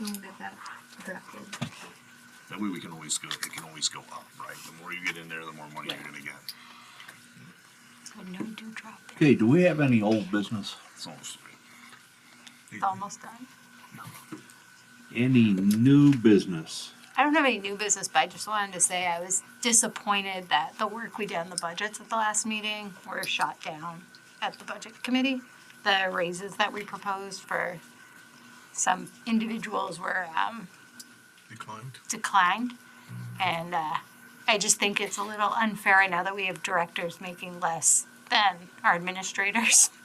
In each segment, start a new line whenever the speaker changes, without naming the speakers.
We'll get that drafted.
That way we can always go, it can always go up, right? The more you get in there, the more money you're
Right.
gonna get.
So no dewdrop.
Okay, do we have any old business?
It's almost free.
Almost done.
Any new business?
I don't have any new business, but I just wanted to say I was disappointed that the work we did on the budgets at the last meeting were shot down at the budget committee. The raises that we proposed for some individuals were um,
Declined.
declined. And uh, I just think it's a little unfair now that we have directors making less than our administrators.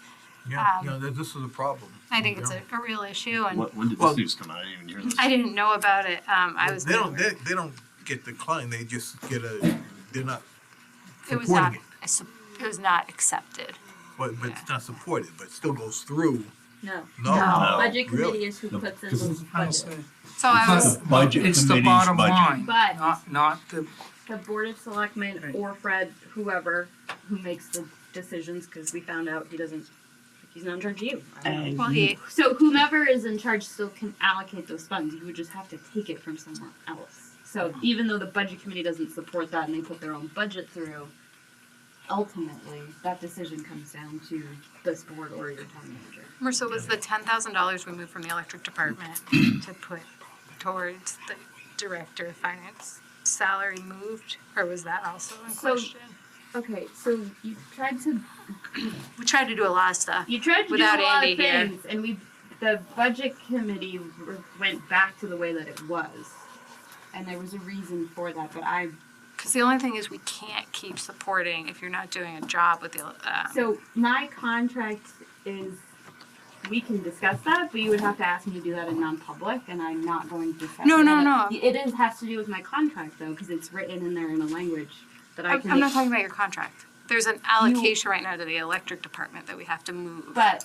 Yeah,
Um,
yeah, th- this is a problem.
I think it's
Yeah.
a, a real issue, and
When did
Well-
this news come out? I didn't even hear this.
I didn't know about it. Um, I was
They don't, they,
nowhere.
they don't get declined, they just get a, they're not,
it was not
supporting
I su- it was not accepted.
but, but
Yeah.
it's not supported, but it still goes through.
No.
No.
No.
Budget
Really?
committee is who puts in
because
those budgets.
So I was
Budget
It's the
committee's
bottom
budget.
line,
But
not, not the,
the board of selectmen
Right.
or Fred, whoever, who makes the decisions, because we found out he doesn't, he's not in charge of you. I don't know.
well, he
So whomever is in charge still can allocate those funds, you would just have to take it from somewhere else. So even though the budget committee doesn't support that and they put their own budget through, ultimately, that decision comes down to this board or your town manager.
Marissa was the ten thousand dollars we moved from the electric department to put towards the director of finance salary moved, or was that also in
So-
question?
Okay, so you tried to
We tried to do a lot of stuff.
You tried to
Without
do a lot
Andy
of
here.
things, and we the budget committee re- went back to the way that it was, and there was a reason for that. But I
Because the only thing is, we can't keep supporting if you're not doing a job with the. Um,
so my contract is we can discuss that, but you would have to ask me to do that in non-public, and I'm not going to discuss.
No, no,
that.
no.
It is has to do with my contract though, because it's written in there in a language that I
I'm,
can.
I'm not talking about your contract. There's an allocation right now to the electric department that we have to move.
But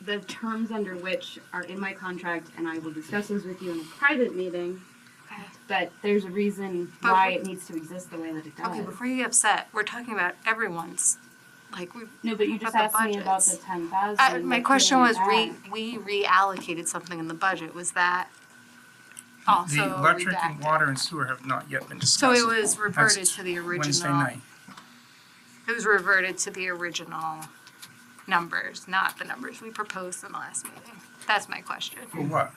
the terms under which are in my contract, and I will discuss those with you in a private meeting.
Okay.
But there's a reason
But
why
we-
it needs to exist the way that it does.
Okay, before you get upset, we're talking about everyone's, like, we.
no, but you
about
just
the
asked me about the
budgets.
ten thousand.
Uh, my question was, re, we reallocated something in the budget, was that also
the electric and
redacted?
water and sewer have not yet been discussed.
So it was reverted
That's
to the
Wednesday
original,
night.
it was reverted to the original numbers, not the numbers we proposed in the last meeting. That's my question.
For what?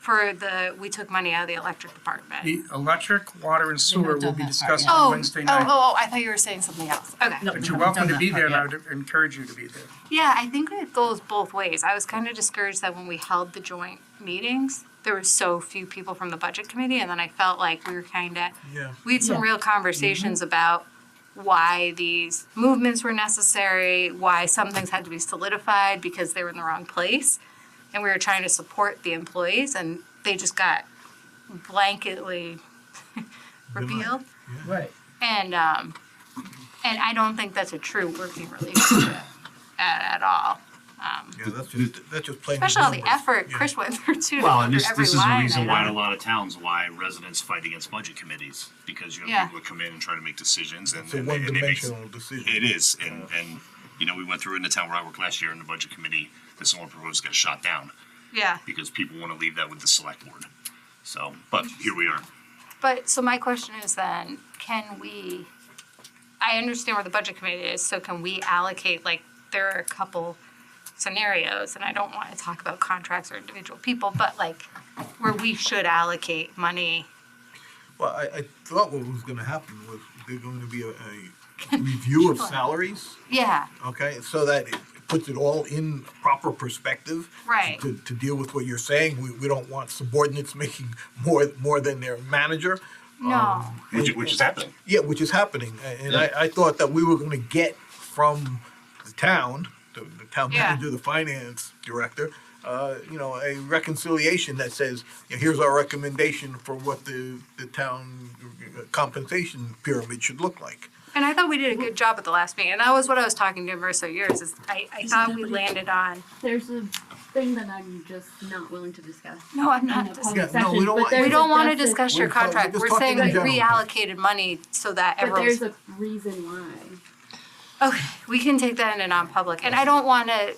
For the, we took money out of the electric department.
The electric, water and sewer will be discussed on
Oh,
Wednesday
oh,
night.
oh, I thought you were saying something else. Okay.
But you're welcome to be there and I would encourage you to be there.
Yeah, I think it goes both ways. I was kind of discouraged that when we held the joint meetings, there were so few people from the budget committee, and then I felt like we were kind of
Yeah.
we had some
Yeah.
real conversations about why these movements were necessary, why some things had to be solidified because they were in the wrong place, and we were trying to support the employees, and they just got blanketly revealed.
Right.
And um, and I don't think that's a true working relationship at, at all.
Yeah, that's just, that's just plain.
Especially all the
numbers.
effort
Yeah.
Chris went through too. to
Well,
go
and
through
this,
every
this is the
line
reason why in a
item.
lot of towns, why residents fight against budget committees, because you
Yeah.
have people that come in and try to make decisions and.
It's a
and they- and they make-
one-dimensional decision.
It is, and, and, you know, we went through it in the town where I worked last year in the budget committee, that someone proposed got shot down,
Yeah.
because people wanna leave that with the select board. So, but here we are.
But so my question is then, can we, I understand where the budget committee is, so can we allocate, like, there are a couple scenarios, and I don't want to talk about contracts or individual people, but like, where we should allocate money.
Well, I, I thought what was gonna happen was there's going to be a, a review of salaries,
Yeah,
okay? So that it puts it all in proper perspective.
Right.
To, to deal with what you're saying, we, we don't want subordinates making more, more than their manager. Um,
no,
Which, which is happening.
Yeah, which is happening, a- and I, I thought that we were gonna get from the town, the, the town
Yeah.
manager, the finance director, uh, you know, a reconciliation that says, you know, here's our recommendation for what the, the town uh, compensation pyramid should look like.
and I thought we did a good job at the last meeting, and that was what I was talking to Marissa yours, is I, I thought we landed on,
There's a thing that I'm just not willing to discuss.
no, I'm
in
not,
a
dis-
public
Yeah, no, we don't
session, but
want-
there's
we
a
don't want to
defi-
discuss your
We're talking- we're
contract,
just
we're
talking
saying
in
we
general.
reallocated money so that
But
everyone's
there's a reason why.
Okay, we can take that in a non-public, and I don't wanna